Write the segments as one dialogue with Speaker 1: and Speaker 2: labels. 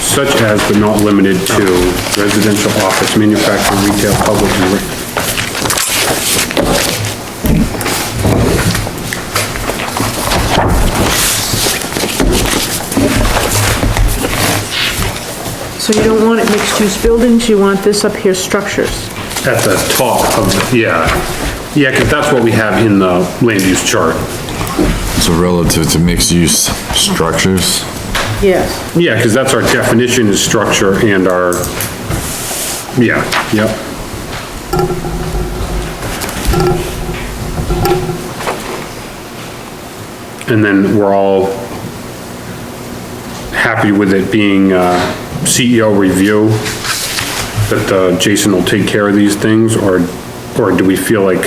Speaker 1: such as but not limited to residential office, manufacturing, retail, public, and re-
Speaker 2: So you don't want it mixed-use buildings, you want this up here, structures.
Speaker 1: at the top of, the- yeah. Yeah, because that's what we have in the land use chart.
Speaker 3: So relative to mixed-use structures,
Speaker 2: Yes.
Speaker 1: Yeah, because that's our definition is structure and our, yeah, yep. And then we're all happy with it being uh, CEO review, that uh, Jason will take care of these things, or, or do we feel like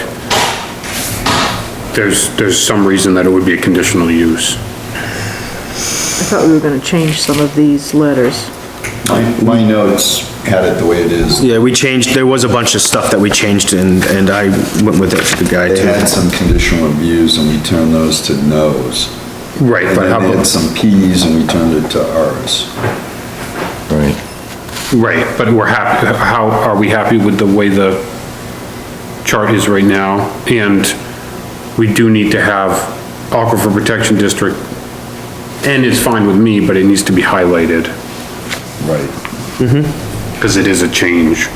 Speaker 1: there's, there's some reason that it would be a conditional use?
Speaker 2: I thought we were gonna change some of these letters.
Speaker 4: My, my notes had it the way it is.
Speaker 5: Yeah, we changed, there was a bunch of stuff that we changed and, and I went with it, the guy
Speaker 4: They had
Speaker 5: too.
Speaker 4: some conditional reviews and we turned those to no's.
Speaker 1: Right,
Speaker 4: And
Speaker 1: but how
Speaker 4: then they had
Speaker 1: about?
Speaker 4: some P's and we turned it to R's.
Speaker 3: right?
Speaker 1: Right, but we're happy, how, are we happy with the way the chart is right now? And we do need to have aquifer protection district, and it's fine with me, but it needs to be highlighted,
Speaker 4: Right.
Speaker 1: because it is a change.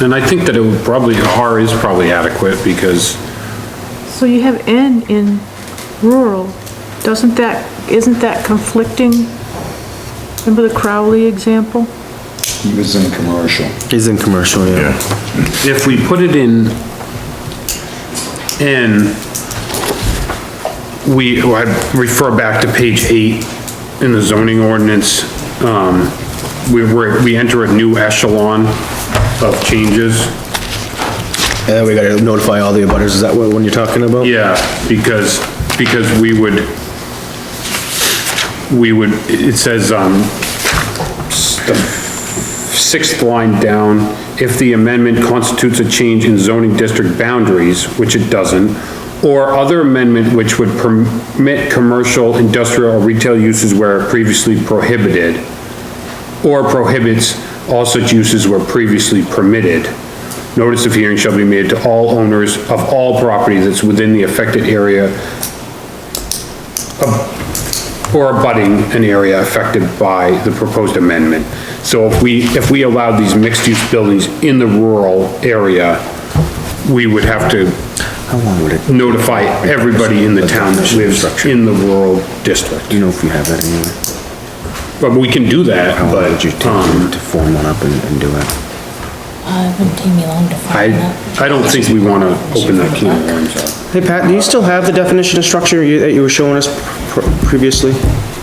Speaker 1: And I think that it would probably, R is probably adequate, because
Speaker 2: So you have N in rural, doesn't that, isn't that conflicting? Remember the Crowley example?
Speaker 4: He was in commercial.
Speaker 5: He's in commercial, yeah.
Speaker 3: Yeah.
Speaker 1: if we put it in N, we, well, I refer back to page eight in the zoning ordinance, um, we, we're- we enter a new echelon of changes.
Speaker 5: Yeah, we gotta notify all the abutters, is that what, one you're talking about?
Speaker 1: Yeah, because, because we would, we would, it says, um, the sixth line down, if the amendment constitutes a change in zoning district boundaries, which it doesn't, or other amendment which would permit commercial, industrial, or retail uses where previously prohibited, or prohibits all such uses where previously permitted. Notice of hearing shall be made to all owners of all property that's within the affected area of- or abutting an area affected by the proposed amendment. So if we, if we allowed these mixed-use buildings in the rural area, we would have to
Speaker 5: How long would it,
Speaker 1: notify everybody in the town that lives in the rural district.
Speaker 5: do you know if you have that anywhere?
Speaker 1: But we can do that,
Speaker 5: How long
Speaker 1: but,
Speaker 5: would you take
Speaker 1: um,
Speaker 5: to to form one up and, and do it?
Speaker 6: Uh, it wouldn't take me long to
Speaker 1: I,
Speaker 6: find out.
Speaker 1: I don't think we want to open that can of worms up.
Speaker 5: Hey, Pat, do you still have the definition of structure you- that you were showing us pr- previously?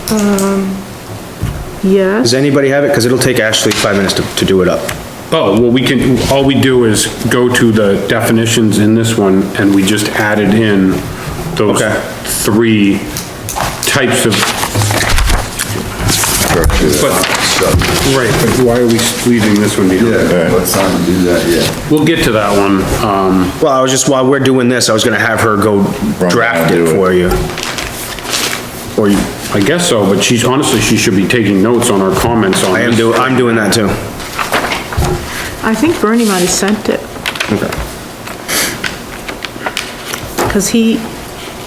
Speaker 5: Does
Speaker 2: Yes,
Speaker 5: anybody have it? Cause it'll take Ashley five minutes to, to do it up.
Speaker 1: Oh, well, we can, all we do is go to the definitions in this one, and we just added in those
Speaker 5: Okay.
Speaker 1: three types of, but, right, but why are we leaving this one behind?
Speaker 4: Yeah, let's not do that yet.
Speaker 1: We'll get to that one, um,
Speaker 5: Well, I was just, while we're doing this, I was gonna have her go
Speaker 3: Run
Speaker 5: draft
Speaker 3: down,
Speaker 5: it
Speaker 3: do it.
Speaker 5: for you.
Speaker 1: or you- I guess so, but she's, honestly, she should be taking notes on our comments on
Speaker 5: I am
Speaker 1: this.
Speaker 5: do, I'm doing that too.
Speaker 2: I think Bernie might have sent it, because he,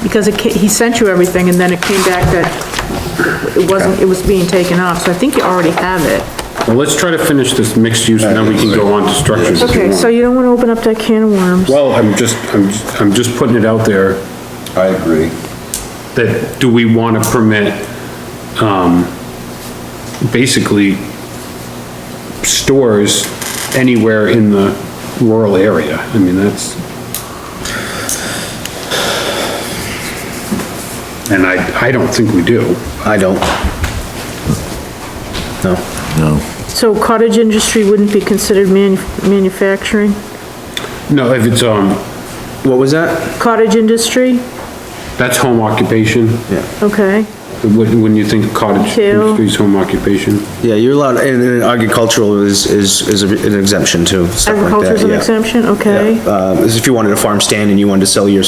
Speaker 2: because it, ca- he sent you everything, and then it came back that it wasn't, it was being taken off, so I think you already have it.
Speaker 1: Well, let's try to finish this mixed use, and then we can go on to structures. if you
Speaker 2: Okay,
Speaker 1: want.
Speaker 2: so you don't want to open up that can of worms.
Speaker 1: Well, I'm just, I'm, I'm just putting it out there.
Speaker 4: I agree.
Speaker 1: that do we want to permit, um, basically stores anywhere in the rural area? I mean, that's. And I, I don't think we do.
Speaker 5: I don't. No.
Speaker 3: No,
Speaker 2: So cottage industry wouldn't be considered manu- manufacturing?
Speaker 1: No, if it's, um,
Speaker 5: What was that?
Speaker 2: Cottage industry,
Speaker 1: that's home occupation.
Speaker 5: Yeah.
Speaker 2: okay,
Speaker 1: Wouldn't, wouldn't you think cottage
Speaker 2: Two.
Speaker 1: industry is home occupation?
Speaker 5: Yeah, you're allowed, and, and agricultural is, is, is an exemption too, stuff like that,
Speaker 2: agriculture's an
Speaker 5: yeah.
Speaker 2: exemption, okay.
Speaker 5: Yeah, Uh, is if you wanted a farm stand and you wanted to sell your